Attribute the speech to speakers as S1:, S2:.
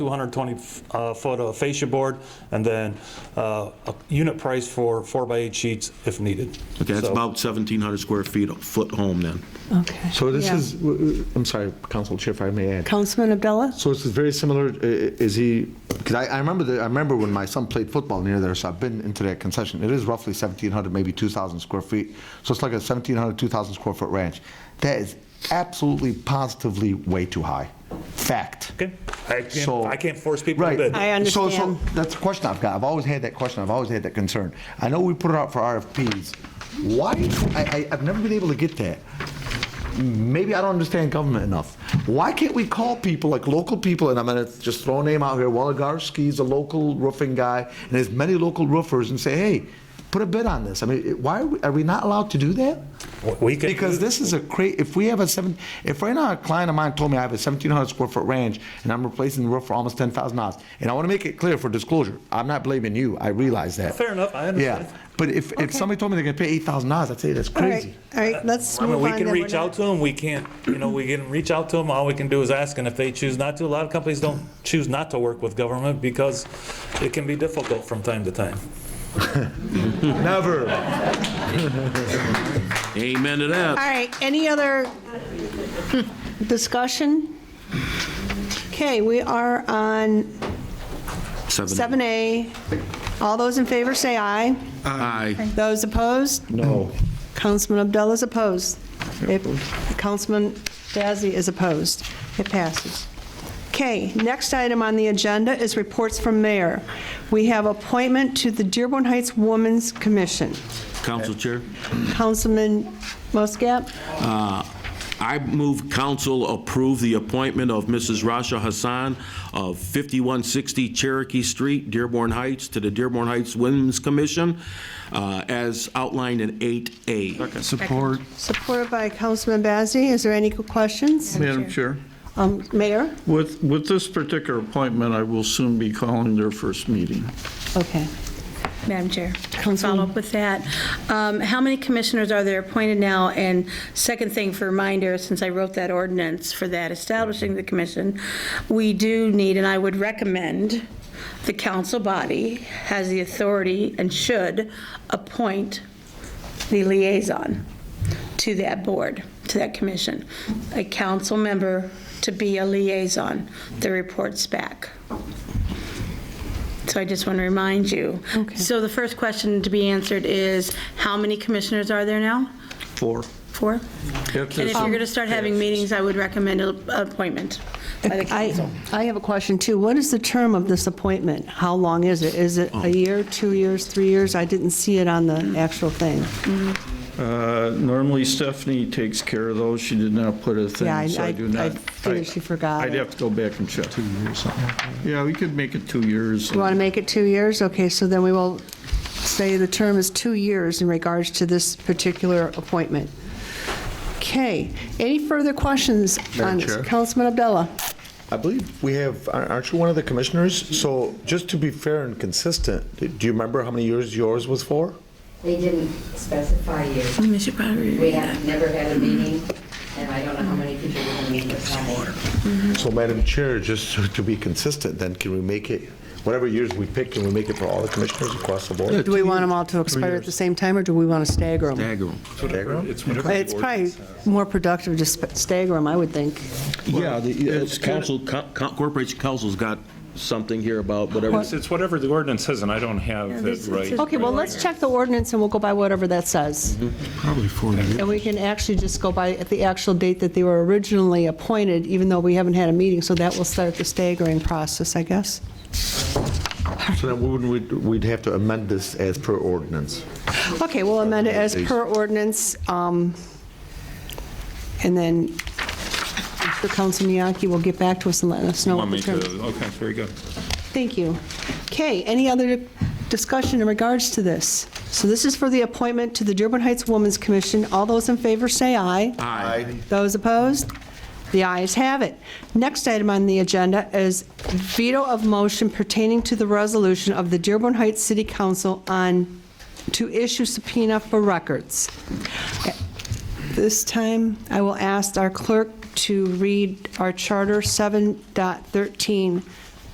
S1: 220 f- uh, foot of fascia board, and then uh, a unit price for four by eight sheets if needed.
S2: Okay, that's
S1: So-
S2: about 1,700 square feet, a foot home then.
S3: Okay.
S4: So this
S3: Yeah.
S4: is, I'm sorry, Council Chair, if I may add.
S3: Councilman Abdullah?
S4: So this is very similar, i- i- is he, because I, I remember, the- I remember when my son played football near there, so I've been into that concession. It is roughly 1,700, maybe 2,000 square feet. So it's like a 1,700, 2,000 square foot ranch. That is absolutely positively way too high. Fact.
S1: Okay. I can't-
S4: So-
S1: I can't force people to
S4: Right.
S1: bid.
S3: I
S4: So- so
S3: understand.
S4: That's a question I've got. I've always had that question. I've always had that concern. I know we put it out for RFPs. Why, I, I, I've never been able to get that. Maybe I don't understand government enough. Why can't we call people, like local people, and I'm gonna just throw a name out here, Woligarski's a local roofing guy, and there's many local roofers, and say, hey, put a bid on this. I mean, it- why, are we- are we not allowed to do that?
S1: We can-
S4: Because this is a cra, if we have a seven, if right now a client of mine told me I have a seventeen hundred square foot ranch and I'm replacing the roof for almost ten thousand dollars, and I want to make it clear for disclosure, I'm not blaming you, I realize that.
S1: Fair enough, I understand.
S4: Yeah, but if, if somebody told me they're gonna pay eight thousand dollars, I'd say that's
S3: All right,
S4: crazy.
S3: all right, let's
S1: I
S3: move
S1: mean,
S3: on.
S1: we can
S3: then. We're
S1: reach
S3: not-
S1: out to them, we can't, you know, we can reach out to them, all we can do is ask, and if they choose not to, a lot of companies don't choose not to work with government because it can be difficult from time to time.
S4: Never.
S2: Amen to
S3: All
S2: that.
S3: right, any other discussion? Okay, we are on 7A. All those in favor say aye.
S2: Aye.
S3: Those opposed?
S4: No.
S3: Councilman Abdullah's opposed. It- Councilman Bazey is opposed. It passes. Okay, next item on the agenda is reports from mayor. We have appointment to the Dearborn Heights Women's Commission.
S2: Council Chair?
S3: Councilman Muscat?
S2: Uh, I move council approve the appointment of Mrs. Rasha Hassan of 5160 Cherokee Street, Dearborn Heights, to the Dearborn Heights Women's Commission uh, as outlined in 8A.
S5: Support.
S3: Supported by Councilman Bazey. Is there any questions?
S5: Madam Chair,
S3: Um, Mayor?
S5: with, with this particular appointment, I will soon be calling their first meeting.
S3: Okay.
S6: Madam Chair, to follow up with that, um, how many commissioners are there appointed now? And second thing for reminder, since I wrote that ordinance for that establishing the commission, we do need, and I would recommend, the council body has the authority and should appoint the liaison to that board, to that commission, a council member to be a liaison that reports back. So I just want to remind you. So the first question to be answered is, how many commissioners are there now?
S5: Four.
S6: Four?
S5: If
S6: And
S5: there's
S6: if you're going to start having meetings, I would recommend an appointment by the
S3: I
S6: council.
S3: I have a question, too. What is the term of this appointment? How long is it? Is it
S4: Oh.
S3: a year, two years, three years? I didn't see it on the actual thing.
S5: Uh, Normally Stephanie takes care of those. She did not put a
S3: Yeah, I-
S5: thing, so
S3: I-
S5: I do not.
S3: I figured she forgot
S5: I'd
S3: it.
S5: have to go back and check. Two years. Yeah, we could make it two years.
S3: You want to make it two years? Okay, so then we will say the term is two years in regards to this particular appointment. Okay, any further questions on
S4: Madam
S3: this?
S4: Chair?
S3: Councilman Abdullah?
S4: I believe we have, aren't aren't you one of the commissioners? So just to be fair and consistent, do you remember how many years yours was for?
S7: They didn't specify you.
S6: We should probably
S7: We have never had a meeting, and I don't know how many people were going to meet this morning.
S4: So Madam Chair, just to- to be consistent, then can we make it, whatever years we pick, can we make it for all the commissioners across the board?
S3: Do we want them all to expire at the same time, or do we want to stagger them?
S2: Dagger 'em.
S3: It's probably more productive to sp- stagger them, I would think.
S2: Yeah, the
S5: it's
S2: uh, council, co- co- corporation council's got something here about whatever.
S8: It's whatever the ordinance says, and I don't have it
S6: this-
S8: right.
S6: this
S3: Okay, well, let's check the ordinance, and we'll go by whatever that says. Probably four. And we can actually just go by at the actual date that they were originally appointed, even though we haven't had a meeting, so that will start the staggering process, I guess.
S4: So then wouldn't we, we'd have to amend this as per ordinance?
S3: Okay, we'll amend it as per ordinance, um, and then Mr. Council Miyaki will get back to us and let us know.
S8: Want
S3: what
S8: me
S3: the
S8: to,
S3: term-
S8: okay, very good.
S3: Thank you. Okay, any other discussion in regards to this? So this is for the appointment to the Dearborn Heights Women's Commission. All those in favor say aye.
S2: Aye.
S3: Those opposed? The ayes have it. Next item on the agenda is veto of motion pertaining to the resolution of the Dearborn Heights City Council on, to issue subpoena for records. This time, I will ask our clerk to read our Charter 7.13